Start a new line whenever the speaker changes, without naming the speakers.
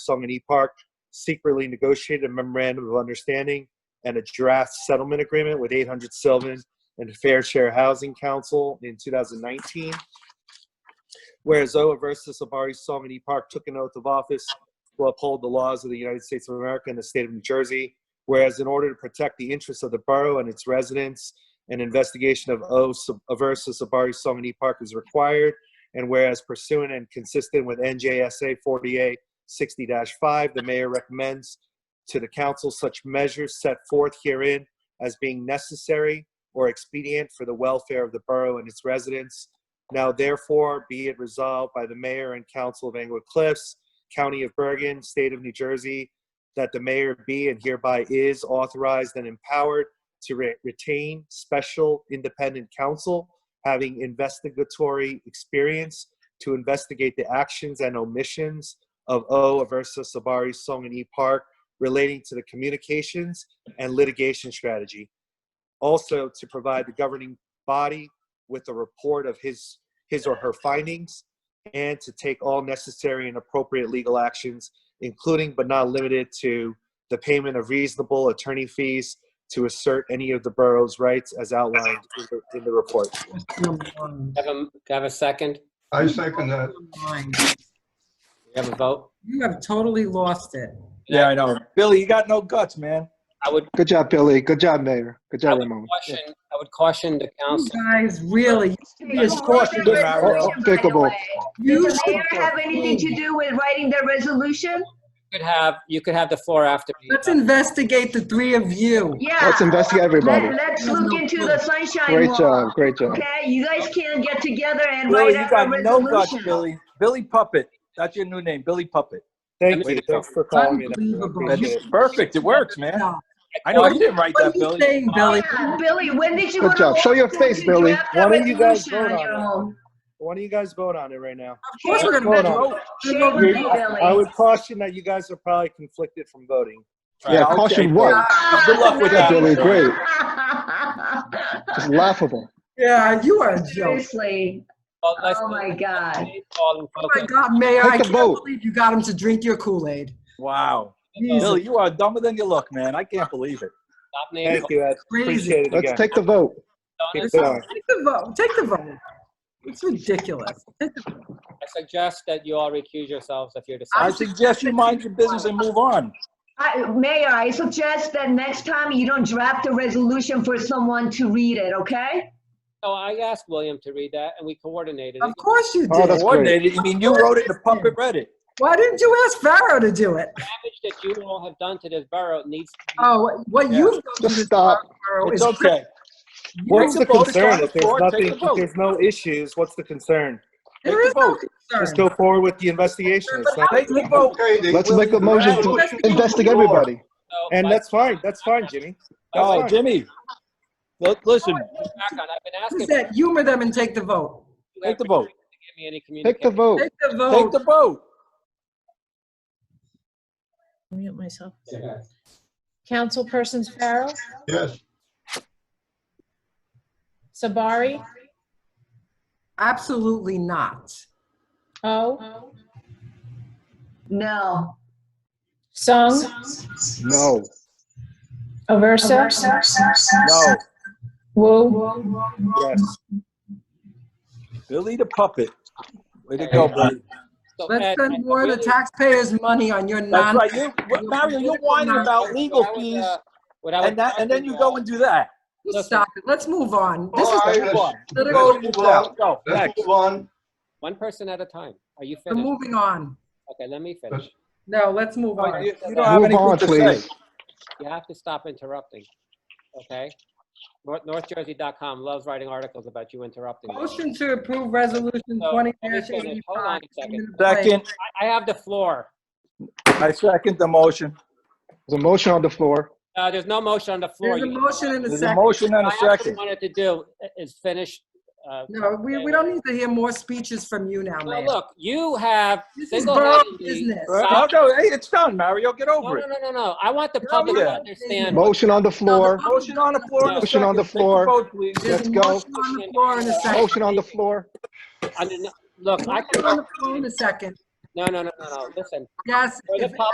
Song and E Park secretly negotiated a memorandum of understanding and a draft settlement agreement with 800 Sylvan and Fair Share Housing Council in 2019. Whereas Oa versus Sabari Song and E Park took an oath of office to uphold the laws of the United States of America and the state of New Jersey. Whereas in order to protect the interests of the borough and its residents, an investigation of O sub- versus Sabari Song and E Park is required. And whereas pursuant and consistent with NJSA 48 60-5, the mayor recommends to the council such measures set forth herein as being necessary or expedient for the welfare of the borough and its residents. Now therefore be it resolved by the mayor and council of Englewood Cliffs, County of Bergen, State of New Jersey, that the mayor be and hereby is authorized and empowered to re- retain special independent counsel having investigatory experience to investigate the actions and omissions of O. Aversa Sabari Song and E. Park relating to the communications and litigation strategy. Also, to provide the governing body with a report of his, his or her findings and to take all necessary and appropriate legal actions, including but not limited to the payment of reasonable attorney fees to assert any of the borough's rights as outlined in the, in the report.
Number
Have a, do I have a second?
I second that.
nine.
We have a vote?
You have totally lost it.
Yeah, I know. Billy, you got no guts, man.
I would
Good job, Billy. Good job, Mayor. Good
I
job,
would
Ramon.
caution, I would caution the
You
council.
guys, really,
Yes, of course you do, Mario.
Despicable.
you
Does the
should,
mayor have anything to do with writing the resolution?
You could have, you could have the floor after. me.
let's investigate the three of you.
Yeah.
Let's investigate everybody.
Let- Let's look into the sunshine
Great job,
law.
great job.
Okay, you guys can't get together and
Billy,
write
you
out
got
a
no guts,
resolution.
Billy. Billy Puppet. That's your new name, Billy Puppet.
Thank
Way
you.
to go.
Thanks for calling me.
Unbelievable.
I
That's
appreciate it.
perfect. It works, man.
No.
I know you didn't write
What are
that,
you
Billy.
saying, Billy?
Yeah, Billy, when did you?
Good
wanna
job. Show your
authorize
face,
you
Billy.
draft a
Why don't you guys
resolution
vote on
your
it?
own?
Why don't you guys vote on it right now?
Of course we're
Hold
gonna
on.
vote.
Shame on you, Billy.
I would caution that you guys are probably conflicted from voting.
Yeah,
Okay.
caution what?
Good luck with that.
Billy, great. It's laughable.
Yeah, you are a joke.
Seriously,
Well, let's-
Oh, my God.
Paul and
Oh my
focus.
God, Mayor,
Take
I
the
can't
vote.
believe you got him to drink your Kool-Aid.
Wow.
Jesus,
Billy, you are dumber than you look, man. I can't believe it.
Stop name
Thank you, Ed.
crazy.
Appreciate it
Let's
again.
take the vote.
calling.
Keep going.
Take the vote, take the vote. It's ridiculous. Take the-
I suggest that you all recuse yourselves if you're
I
deciding.
suggest you mind your business and move on.
I, Mayor, I suggest that next time you don't draft a resolution for someone to read it, okay?
So I asked William to read that and we coordinated.
Of course you
Oh,
did.
that's-
Coordinated. I mean, you wrote it, the puppet read it.
Why didn't you ask Pharaoh to do it?
The damage that you all have done to this borough needs to be
Oh, what
Yeah.
you've done
Just
to
stop.
Pharaoh
It's
is
okay.
What's the
Take vote, it's on
concern?
the
If there's
floor,
nothing,
take the vote.
if there's no issues, what's the concern?
There is no
Just
concern.
go forward with the investigation. It's not-
Take the vote.
Let's make a motion to investigate everybody.
so.
And that's
let's
fine, that's fine, Jimmy. That's
Oh,
fine.
Jimmy. Look, listen,
get back on. I've been asking.
Is that humor them and take the vote.
you
take the
every
vote.
time to Give me any
Take the
communication.
vote.
Take the
take the
vote.
vote.
Mute myself.
Yeah.
Councilperson Farrell,
Yes.
Sabari,
Absolutely not.
O,
No.
Sung,
No.
Aversa,
No,
Wu,
Yes.
Billy the puppet. Way to go, buddy.
So,
Let's
Ed, I
spend more of the
really-
taxpayers' money on your
That's
non.
right. You, what- Mario, you're whining about legal
What I would,
fees,
uh, what I would
and that, and then you go and do that.
You Stop it. Let's move on.
Oh,
This
All
is
right,
Move
let's-
on.
political.
Go,
let's move
out.
on.
Go,
Let's
next.
move on.
One person at a time. Are you
We're
finished?
moving on.
Okay, let me finish.
No, let's move
No,
on.
You you don't have
Move on,
anything to say.
please.
You have to stop interrupting, okay? North NorthJersey.com loves writing articles about you interrupting. them.
Motion to approve resolution
So,
twenty
let me finish. Hold on
eighty-five.
a second.
Second,
I I have the floor.
I second the motion.
There's a motion on the floor.
Uh, There's no motion on the floor.
There's a
You-
motion in a
There's a
second.
motion and a
What I actually
second.
wanted to do is finish. uh,
No, we, we don't need to hear more speeches from you now,
Well,
man.
look, you have
This is borough
single-handedly.
business.
Uh, No, no, hey, it's done, Mario. Get
No,
over
no,
it.
no, no, no. I want the
No,
public to
yeah.
understand.
Motion on the floor.
Motion on the floor. and a
Motion on the
second. Take
floor.
vote, please.
There's
let's
a
go.
motion on the floor in a second.
Motion on the floor.
under- Look, I
Oh,
Motion
can
on the floor in a second.
No, no, no, no, no, listen.
Yes.
For the
if-